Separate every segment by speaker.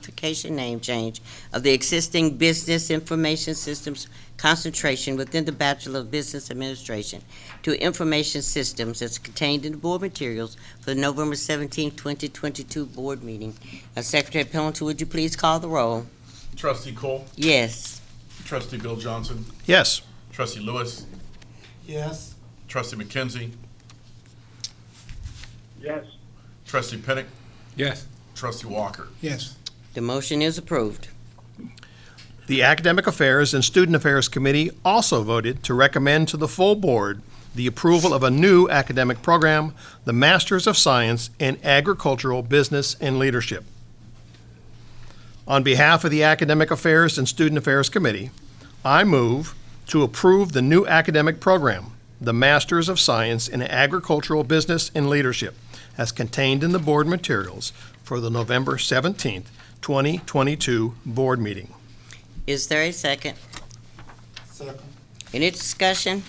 Speaker 1: modification name change of the existing business information systems concentration within the Bachelor of Business Administration to information systems as contained in the board materials for the November 17, 2022 board meeting. Uh, Secretary Pelletier, would you please call the roll?
Speaker 2: Trustee Cole,
Speaker 1: Yes.
Speaker 2: Trustee Bill Johnson,
Speaker 3: Yes.
Speaker 2: Trustee Lewis,
Speaker 4: Yes.
Speaker 2: Trustee McKenzie,
Speaker 5: Yes.
Speaker 2: Trustee Pinnick,
Speaker 5: Yes.
Speaker 2: Trustee Walker.
Speaker 4: Yes.
Speaker 1: The motion is approved.
Speaker 3: The Academic Affairs and Student Affairs Committee also voted to recommend to the full board the approval of a new academic program, the Masters of Science in Agricultural Business and Leadership. On behalf of the Academic Affairs and Student Affairs Committee, I move to approve the new academic program, the Masters of Science in Agricultural Business and Leadership, as contained in the board materials for the November 17th, 2022 board meeting.
Speaker 1: Is there a second?
Speaker 4: Second.
Speaker 1: Any discussion?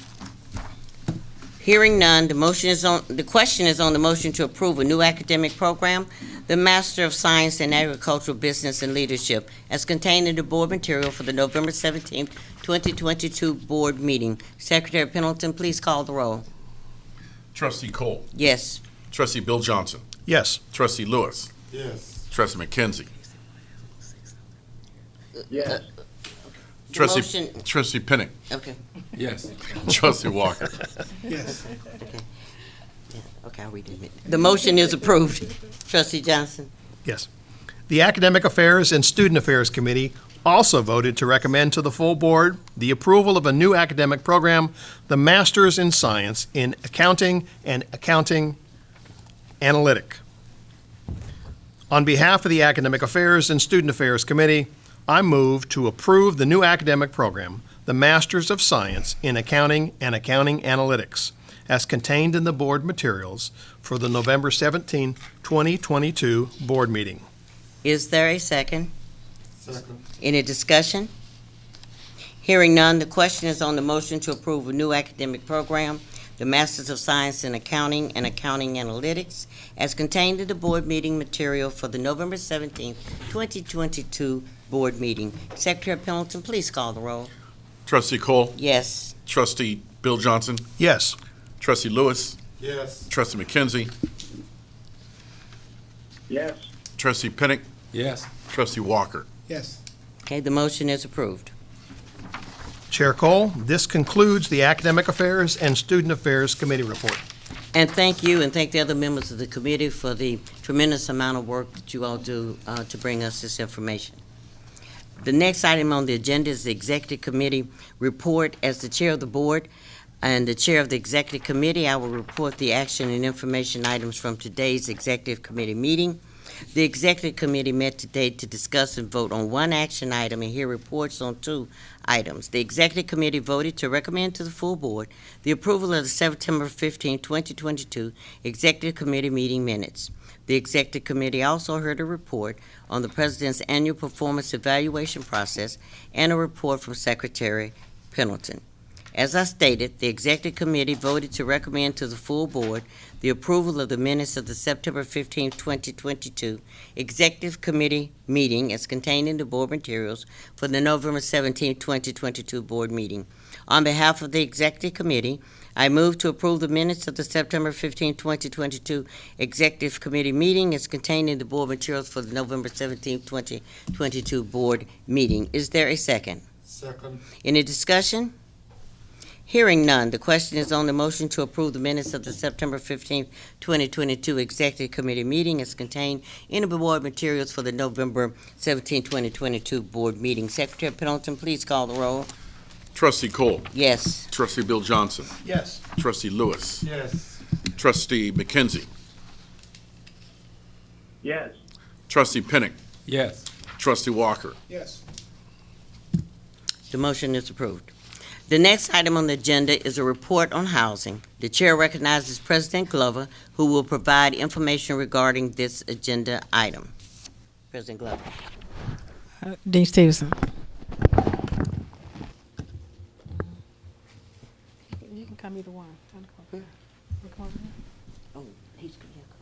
Speaker 1: Hearing none, the motion is on, the question is on the motion to approve a new academic program, the Master of Science in Agricultural Business and Leadership, as contained in the board material for the November seventeenth, twenty twenty-two board meeting. Secretary Pendleton, please call the roll.
Speaker 2: Trustee Cole,
Speaker 1: Yes.
Speaker 2: Trustee Bill Johnson,
Speaker 3: Yes.
Speaker 2: Trustee Lewis,
Speaker 4: Yes.
Speaker 2: Trustee McKenzie,
Speaker 5: Yes.
Speaker 1: The
Speaker 2: Trustee,
Speaker 1: motion-
Speaker 2: Trustee Pinnick,
Speaker 1: Okay,
Speaker 5: Yes.
Speaker 2: Trustee Walker.
Speaker 4: Yes.
Speaker 1: okay, I'll read it. The motion is approved. Trustee Johnson?
Speaker 3: Yes. The Academic Affairs and Student Affairs Committee also voted to recommend to the full board the approval of a new academic program, the Masters in Science in Accounting and Accounting Analytic. On behalf of the Academic Affairs and Student Affairs Committee, I move to approve the new academic program, the Masters of Science in Accounting and Accounting Analytics, as contained in the board materials for the November 17, 2022 board meeting.
Speaker 1: Is there a second?
Speaker 4: Second.
Speaker 1: Any discussion? Hearing none, the question is on the motion to approve a new academic program, the Masters of Science in Accounting and Accounting Analytics, as contained in the board meeting material for the November seventeenth, twenty twenty-two board meeting. Secretary Pendleton, please call the roll.
Speaker 2: Trustee Cole,
Speaker 1: Yes.
Speaker 2: Trustee Bill Johnson,
Speaker 3: Yes.
Speaker 2: Trustee Lewis,
Speaker 4: Yes.
Speaker 2: Trustee McKenzie,
Speaker 5: Yes.
Speaker 2: Trustee Pinnick,
Speaker 5: Yes.
Speaker 2: Trustee Walker.
Speaker 4: Yes.
Speaker 1: Okay, the motion is approved.
Speaker 3: Chair Cole, this concludes the Academic Affairs and Student Affairs Committee report.
Speaker 1: And thank you, and thank the other members of the committee for the tremendous amount of work that you all do uh, to bring us this information. The next item on the agenda is the Executive Committee report. As the Chair of the Board and the Chair of the Executive Committee, I will report the action and information items from today's Executive Committee meeting. The Executive Committee met today to discuss and vote on one action item and hear reports on two items. The Executive Committee voted to recommend to the full Board the approval of the September 15, 2022 Executive Committee meeting minutes. The Executive Committee also heard a report on the President's annual performance evaluation process and a report from Secretary Pendleton. As I stated, the Executive Committee voted to recommend to the full Board the approval of the minutes of the September 15, 2022 Executive Committee meeting as contained in the board materials for the November 17, 2022 board meeting. On behalf of the Executive Committee, I move to approve the minutes of the September 15, 2022 Executive Committee meeting as contained in the board materials for the November 17, 2022 board meeting. Is there a second?
Speaker 4: Second.
Speaker 1: Any discussion? Hearing none, the question is on the motion to approve the minutes of the September 15, 2022 Executive Committee meeting as contained in the board materials for the November 17, 2022 board meeting. Secretary Pendleton, please call the roll.
Speaker 2: Trustee Cole,
Speaker 1: Yes.
Speaker 2: Trustee Bill Johnson,
Speaker 3: Yes.
Speaker 2: Trustee Lewis,
Speaker 4: Yes.
Speaker 2: Trustee McKenzie,
Speaker 5: Yes.
Speaker 2: Trustee Pinnick,
Speaker 5: Yes.
Speaker 2: Trustee Walker.
Speaker 4: Yes.
Speaker 1: The motion is approved. The next item on the agenda is a report on housing. The chair recognizes President Glover, who will provide information regarding this agenda item. President Glover.
Speaker 6: Dean Stevenson. You can come either one.
Speaker 1: Oh, he's, yeah,